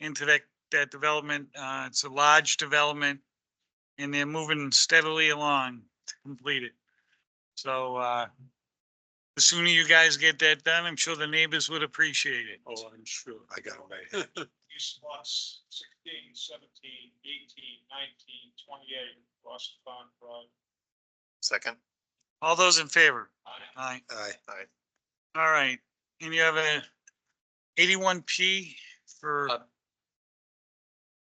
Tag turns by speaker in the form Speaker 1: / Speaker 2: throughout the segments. Speaker 1: into that, that development. Uh, it's a large development and they're moving steadily along to complete it. So, uh, the sooner you guys get that done, I'm sure the neighbors would appreciate it.
Speaker 2: Oh, I'm sure.
Speaker 3: I got it right
Speaker 2: These lots 16, 17, 18, 19, 28, Boston Pond Drive.
Speaker 3: Second.
Speaker 1: All those in favor?
Speaker 2: I-
Speaker 1: Aye.
Speaker 3: Aye. Aye.
Speaker 1: All right. And you have a eighty-one P for,
Speaker 2: Uh,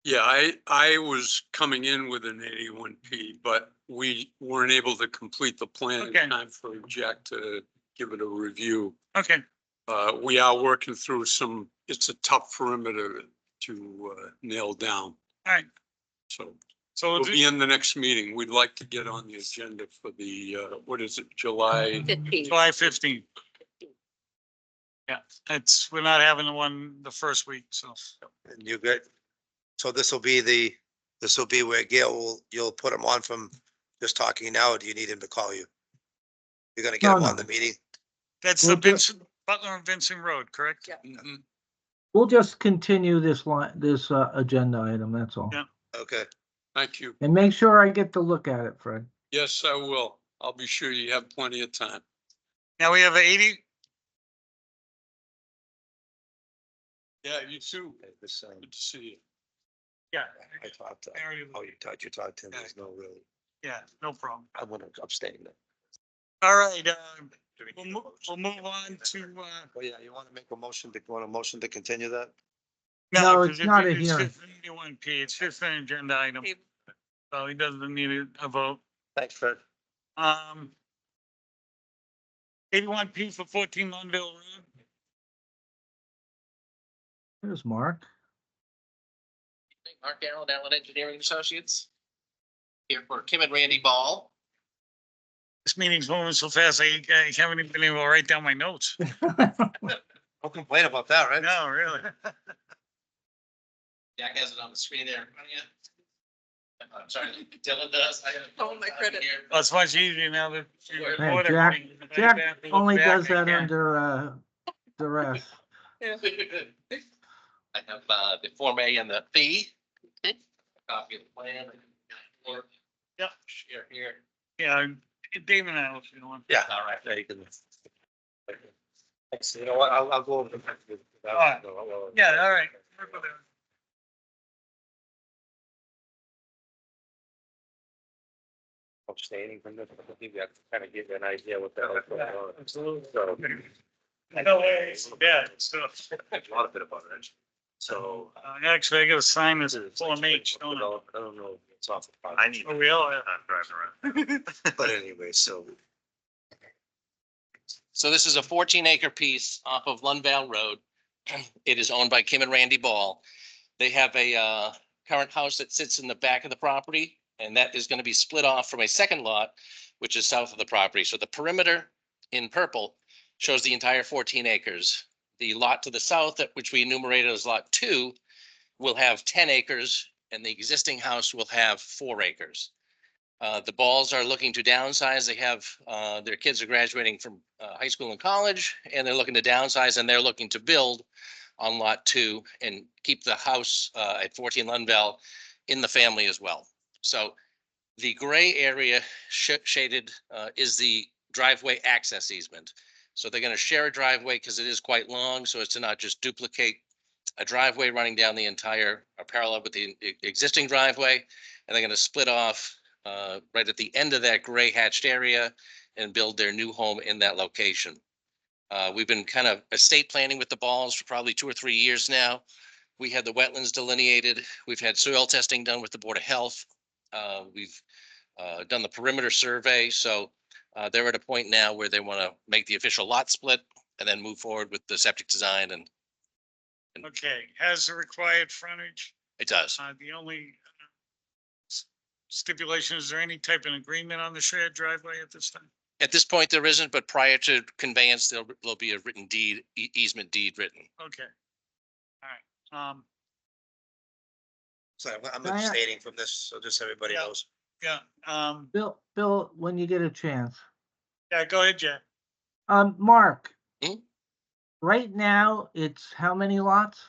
Speaker 2: Yeah, I, I was coming in with an eighty-one P, but we weren't able to complete the plan
Speaker 1: Okay.
Speaker 2: in time for Jack to give it a review.
Speaker 1: okay,
Speaker 2: Uh, we are working through some, it's a tough perimeter to uh, nail down.
Speaker 1: all right.
Speaker 2: So
Speaker 1: So we'll
Speaker 2: we'll
Speaker 1: do
Speaker 2: be in the next meeting. We'd like to get on the agenda for the, uh, what is it, July?
Speaker 4: Fifteen.
Speaker 1: July fifteenth. Yeah, it's, we're not having the one the first week, so.
Speaker 3: And you get, so this will be the, this will be where Gail will, you'll put him on from just talking now, or do you need him to call you? You're gonna get
Speaker 5: No,
Speaker 3: him on
Speaker 5: no.
Speaker 3: the meeting?
Speaker 1: That's the
Speaker 5: We'll do-
Speaker 1: Vincent, Butler and Vincent Road, correct?
Speaker 4: Yeah.
Speaker 2: Mhm.
Speaker 5: We'll just continue this line, this uh, agenda item, that's all.
Speaker 1: Yeah.
Speaker 3: Okay,
Speaker 2: Thank you.
Speaker 5: And make sure I get to look at it, Fred.
Speaker 2: Yes, I will. I'll be sure you have plenty of time.
Speaker 1: Now we have a eighty,
Speaker 2: Yeah, you too.
Speaker 3: Okay, this, um,
Speaker 2: Good to see you.
Speaker 1: yeah.
Speaker 3: I talked, to-
Speaker 1: I already-
Speaker 3: oh, you talked, you talked to him, there's no really,
Speaker 1: Yeah, no problem.
Speaker 3: I'm gonna abstain then.
Speaker 1: All right, uh,
Speaker 3: Do we
Speaker 1: we'll
Speaker 3: need a
Speaker 1: move, we'll
Speaker 3: motion?
Speaker 1: move on to, uh.
Speaker 3: Oh, yeah, you wanna make a motion, to want a motion to continue that?
Speaker 5: No,
Speaker 1: 'cause
Speaker 5: it's not a hearing.
Speaker 1: Eighty-one P, it's just an agenda item, so he doesn't need a vote.
Speaker 3: Thanks, Fred.
Speaker 1: Um. Eighty-one P for fourteen Lundville Road.
Speaker 5: There's Mark.
Speaker 6: Mark Darrell, Allen Engineering Associates. Here for Kim and Randy Ball.
Speaker 1: This meeting's moving so fast, I I haven't even been able to write down my notes.
Speaker 3: Don't complain about that, right?
Speaker 1: No, really.
Speaker 6: Jack has it on the screen there. in front of you. I'm sorry, Dylan does. I have a phone
Speaker 4: Oh, my
Speaker 6: out
Speaker 4: credit.
Speaker 6: here.
Speaker 1: Well, It's much easier now that. you
Speaker 6: Hey,
Speaker 1: record
Speaker 5: Jack-
Speaker 1: everything.
Speaker 5: Jack
Speaker 1: Back and
Speaker 5: Only
Speaker 1: back
Speaker 5: does that
Speaker 1: again.
Speaker 5: under uh, duress.
Speaker 6: I have uh, the Form A and the fee. Copy of the plan.
Speaker 1: Yep.
Speaker 6: Share here.
Speaker 1: Yeah, Dave and I, if you want.
Speaker 3: Yeah.
Speaker 6: All right.
Speaker 3: Yeah, you can. Thanks, you know what, I'll, I'll go over. the-
Speaker 1: right. Yeah, all right.
Speaker 3: abstaining from this, I think that kind of give you an idea what the hell's going on.
Speaker 1: Absolutely.
Speaker 3: So,
Speaker 1: No worries, yeah, so,
Speaker 3: a lot of bit about it. So.
Speaker 1: uh, actually, I gotta sign this
Speaker 3: it's like-
Speaker 1: Form H, don't I?
Speaker 3: I don't know. if It's off. I need.
Speaker 1: Oh, we all have.
Speaker 3: But anyway, so.
Speaker 6: So this is a fourteen acre piece off of Lundvale Road. It is owned by Kim and Randy Ball. They have a uh current house that sits in the back of the property. And that is going to be split off from a second lot, which is south of the property. So the perimeter in purple shows the entire fourteen acres. The lot to the south, that which we enumerated as lot two, will have ten acres and the existing house will have four acres. Uh, the Balls are looking to downsize. They have, uh, their kids are graduating from, uh, high school and college, and they're looking to downsize, and they're looking to build on lot two and keep the house, uh, at fourteen Lundvall in the family as well. So the gray area sh- shaded, uh, is the driveway access easement. So they're gonna share a driveway because it is quite long, so as to not just duplicate a driveway running down the entire, uh, parallel with the e- existing driveway, and they're gonna split off uh, right at the end of that gray hatched area and build their new home in that location. Uh, We've been kind of estate planning with the balls for probably two or three years now. We had the wetlands delineated. We've had soil testing done with the Board of Health. Uh, We've uh, done the perimeter survey, so uh, they're at a point now where they want to make the official lot split and then move forward with the septic design, and
Speaker 1: Okay, has the required frontage,
Speaker 6: it does.
Speaker 1: uh, the only uh, s- stipulation, is there any type of agreement on the shared driveway at this time?
Speaker 6: At this point, there isn't, but prior to conveyance, there'll there'll be a written deed, e- easement deed written.
Speaker 1: Okay. All right, um,
Speaker 3: So I'm- I'm
Speaker 5: Diane-
Speaker 3: abstaining from this, so just everybody
Speaker 1: Yeah.
Speaker 3: knows.
Speaker 1: yeah, um,
Speaker 5: Bill, Bill, when you get a chance.
Speaker 1: yeah, go ahead, Jack.
Speaker 5: Um, Mark.
Speaker 6: Hmm?
Speaker 5: Right now, it's how many lots?